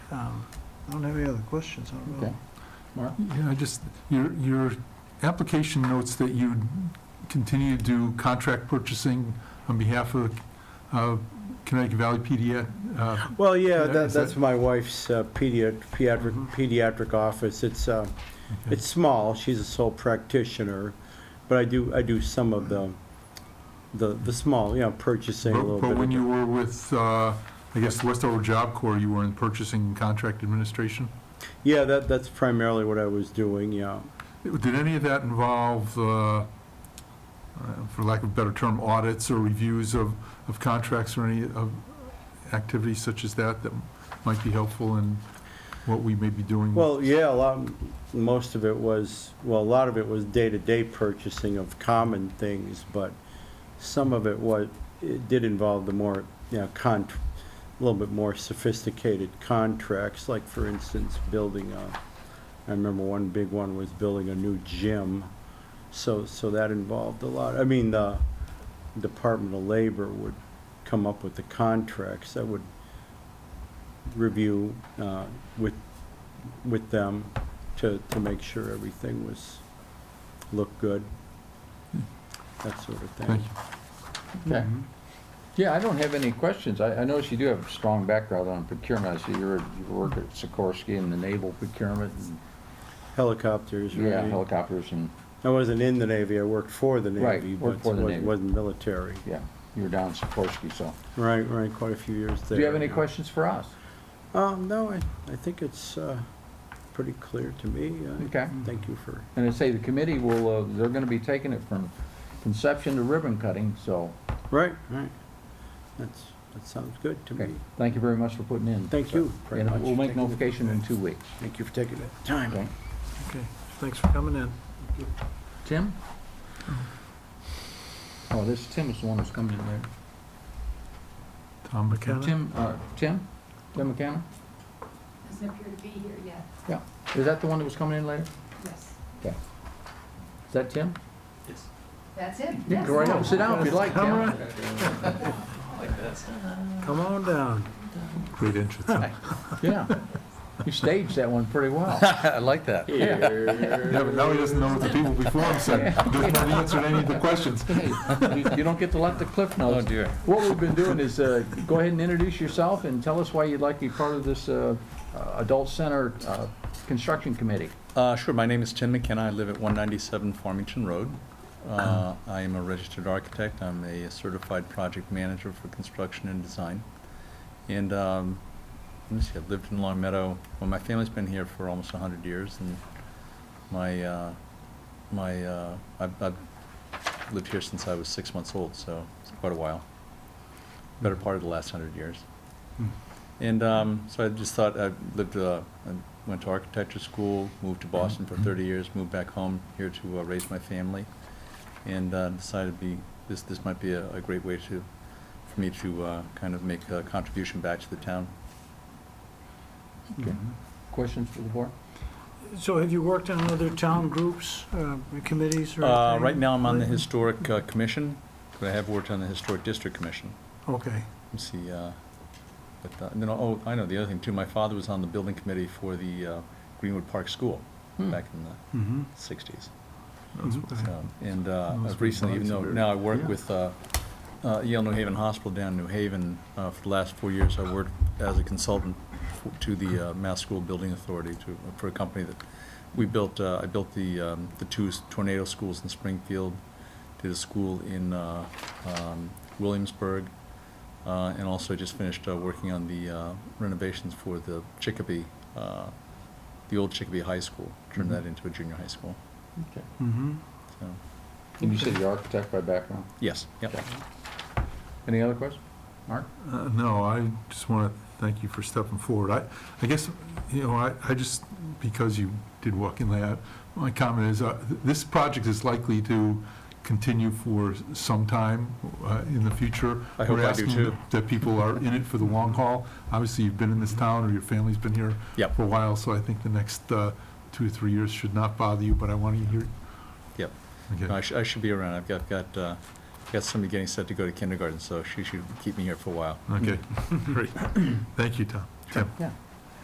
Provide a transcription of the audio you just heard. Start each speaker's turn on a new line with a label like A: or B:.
A: Um, I don't have any other questions, I don't know.
B: Okay. Mark?
C: Yeah, I just, your, your application notes that you continue to do contract purchasing on behalf of uh, Connecticut Valley PDA. uh,
B: Well, yeah,
C: Yeah,
B: that,
C: is
B: that's
C: that-
B: my wife's uh, pediat- pediatric,
C: Mhm.
B: pediatric office. It's, uh,
C: okay.
B: it's small, she's a sole practitioner, but I do, I do some of the, the, the small, you know, purchasing a
C: But
B: little bit.
C: but when
B: of-
C: you were with, uh, I guess, the Westover Job Corps, you were in purchasing and contract administration?
B: Yeah, that, that's primarily what I was doing, yeah.
C: Did any of that involve, uh, uh, for lack of a better term, audits or reviews of, of contracts or any of activities such as that that might be helpful in what we may be doing?
B: Well, yeah, a lot, most of it was, well, a lot of it was day-to-day purchasing of common things, but some of it was, it did involve the more, you know, con, a little bit more sophisticated contracts, like for instance, building a, I remember one big one was building a new gym, so, so that involved a lot. I mean, the Department of Labor would come up with the contracts that would review, uh, with with them to, to make sure everything was, looked good, that sort of
C: Hmm. Thank
B: thing.
C: you.
D: Okay.
B: Mm-hmm.
A: Mm-hmm.
D: Yeah, I don't have any questions. I, I notice you do have a strong background on procurement. I see you're, you work at Sikorsky and the naval procurement and,
B: Helicopters,
D: yeah,
B: right?
D: helicopters and,
B: I wasn't in the Navy, I worked for the
D: Right,
B: Navy, but
D: worked for the
B: wasn't,
D: Navy.
B: wasn't military.
D: yeah, you were down at Sikorsky, so.
B: Right, right, quite a few years there.
D: Do you have any questions for us?
B: Um, no, I, I think it's, uh, pretty clear to me. I
D: Okay.
B: Thank you for,
D: And I say the committee will, uh, they're gonna be taking it from conception to ribbon cutting, so,
B: right, right. That's, that sounds good to
D: okay.
B: me.
D: Thank you very much for putting in.
B: Thank you very
D: And
B: much.
D: we'll make
B: Thank you.
D: notification in two weeks.
B: Thank you for taking the time.
D: Okay.
A: Okay, thanks for coming in.
D: Tim? Oh, this, Tim is the one who's coming in there.
C: Tom McKenna?
D: Tim, uh, Tim? Tim McKenna?
E: Doesn't appear to be here yet,
D: Is that the one that was coming in later?
E: yes.
D: Is that Tim?
E: That's it,
D: Yeah,
E: yes.
D: Go right up, Oh, sit down if you'd like,
A: Come
D: Tim.
A: on, come on down.
C: Great interest. Now,
D: Yeah. You staged that one pretty well.
F: I like that.
D: Yeah.
C: but now he doesn't know what the people before him said. He doesn't know the answer to any of the questions.
D: You you don't get to let the cliff
F: Oh
D: notes.
F: dear.
D: What we've been doing is, uh, go ahead and introduce yourself and tell us why you'd like to be part of this uh, uh, Adult Center uh, Construction Committee.
F: Uh, sure, my name is Tim McKenna. I live at 197 Farmington Road. Uh, I am a registered architect. I'm a certified project manager for construction and design. And, um, let me see, I've lived in Long Meadow, well, my family's been here for almost 100 years and my, uh, my, uh, I've, I've lived here since I was six months old, so it's quite a while. Better part of the last 100 years. And um, so I just thought, I lived, uh, I went to architecture school, moved to Boston for 30 years, moved back home here to uh, raise my family, and uh, decided to be, this, this might be a, a great way to, for me to uh, kind of make a contribution back to the town.
D: Okay. Questions for the board?
A: So have you worked on other town groups, uh, committees or
F: Uh,
A: anything?
F: Right now, I'm on the
A: lately?
F: Historic uh, Commission, but I have worked on the Historic District Commission.
A: Okay,
F: Let's see, uh, but, uh, and then, oh, I know, the other thing too, my father was on the building committee for the uh, Greenwood Park School
D: Hmm.
F: back in the
C: Mhm.
F: 60s.
C: Mhm.
F: Um, And uh,
C: Those
F: I've recently, even
C: bodies
F: though
C: are-
F: now I work
C: yeah.
F: with uh, uh, Yale New Haven Hospital down in New Haven, uh, for the last four years, I worked as a consultant f- to the uh, Mass School Building Authority to, for a company that, we built, uh, I built the, um, the two s- tornado schools in Springfield, did a school in uh, um, Williamsburg, uh, and also just finished uh, working on the uh, renovations for the Chicopee, uh, the old Chicopee High School, turned that into a junior high school,
D: Okay.
C: Mhm.
F: so,
D: And you said you're architect by background?
F: yes, yep.
D: Okay. Any other questions? Mark?
C: Uh, No, I just want to thank you for stepping forward. I, I guess, you know, I, I just, because you did walk in late, my comment is, uh, th- this project is likely to continue for some time uh, in the future.
F: I hope
C: We're
F: I do,
C: asking
F: too.
C: that- That people are in it for the long haul. Obviously, you've been in this town, or your family's been here
F: Yep.
C: for a while, so I think the next uh, two or three years should not bother you, but I want to hear.
F: Yep.
C: Okay.
F: No, I should, I should be around. I've got, got, uh, got somebody getting set to go to kindergarten, so she should keep me here for a while.
C: Okay, great. Thank you, Tom. Tim.
D: Yeah.